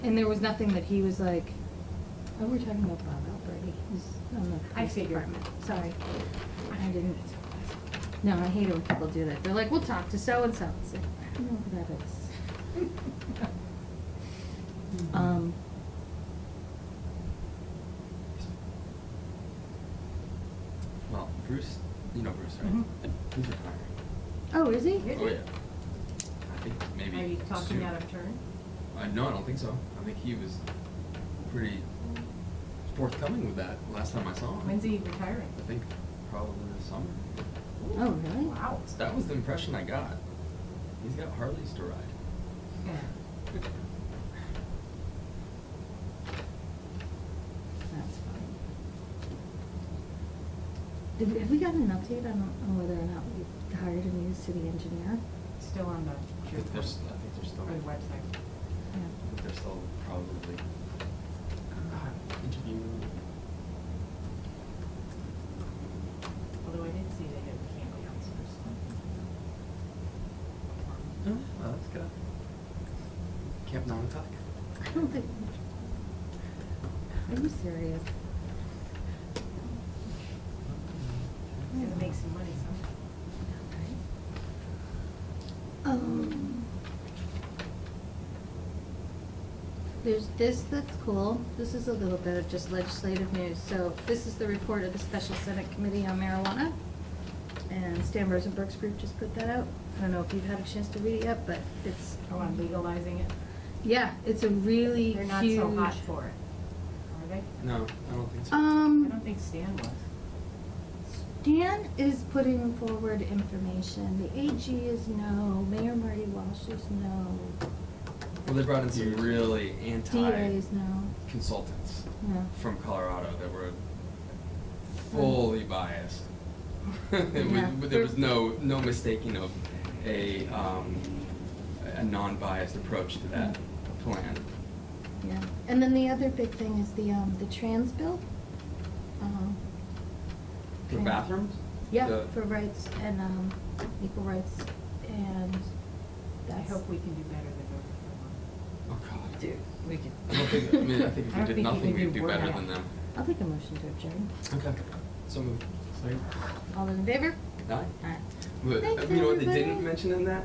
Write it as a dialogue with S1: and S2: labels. S1: And there was nothing that he was like, oh, we're talking about Bob Alberti, he's on the
S2: I
S1: police
S2: figured.
S1: department, sorry. I didn't, no, I hate it when people do that, they're like, we'll talk to so-and-so, it's like, I don't know who that is. Um,
S3: Well, Bruce, you know Bruce, right?
S1: Mhm.
S2: Mm-hmm.
S3: He's retiring.
S1: oh, is he?
S2: Is
S3: Oh,
S2: he?
S3: yeah. I think maybe.
S2: Are you talking
S3: soon.
S2: out of turn?
S3: Uh, no, I don't think so. I think he was pretty forthcoming with that last time I saw him.
S2: When's he retiring?
S3: Oh. I think probably this summer.
S1: Oh, really?
S2: Wow.
S3: That was the impression I got. He's got Harleys to ride.
S1: That's fine. Did, we- have we gotten an update on, on whether or not we hired a new city engineer?
S2: Still on the.
S3: I think there's, I think there's still.
S2: Or the website.
S3: I think they're still probably uh, interviewing.
S2: Although I did see they had camp counselors.
S3: Oh, well, that's good. Camp nine o'clock.
S1: I don't think, are you serious?
S2: Gotta make some money somehow.
S1: Um, There's this that's cool. This is a little bit of just legislative news. So this is the report of the Special Senate Committee on Marijuana. And Stan Rosenberg's group just put that out. I don't know if you've had a chance to read it yet, but it's.
S2: Oh, on legalizing it?
S1: Yeah, it's a really huge.
S2: They're not so hot for it, are they?
S3: No, I don't think so.
S1: Um.
S2: I don't think Stan was.
S1: Dan is putting forward information. The AG is no, Mayor Marty Walsh is no,
S3: Well, they brought in some really
S1: DA
S3: anti
S1: is no,
S3: consultants
S1: no.
S3: from Colorado that were fully biased. It was-
S1: Hmm. Yeah.
S3: There was no, no mistaking of a, um, a non-biased approach to that
S1: Hmm.
S3: plan.
S1: Yeah, and then the other big thing is the, um, the trans bill. Um,
S3: For
S1: trans-
S3: bathrooms?
S1: Yeah,
S3: The-
S1: for rights and, um, equal rights and
S2: I
S1: that's.
S2: hope we can do better than voting for
S3: Oh, God.
S4: Dude, we could.
S3: I don't think, I mean, I think if
S2: I don't think
S3: we did
S2: you
S3: nothing,
S2: can do
S3: we'd do better
S2: worse.
S3: than them.
S1: I'll take a motion to adjourn.
S3: Okay. So moved. Sorry.
S1: All those in favor?
S3: Aye.
S1: Aye.
S3: But,
S1: Thanks,
S3: you know what they
S1: everybody.
S3: didn't mention in that?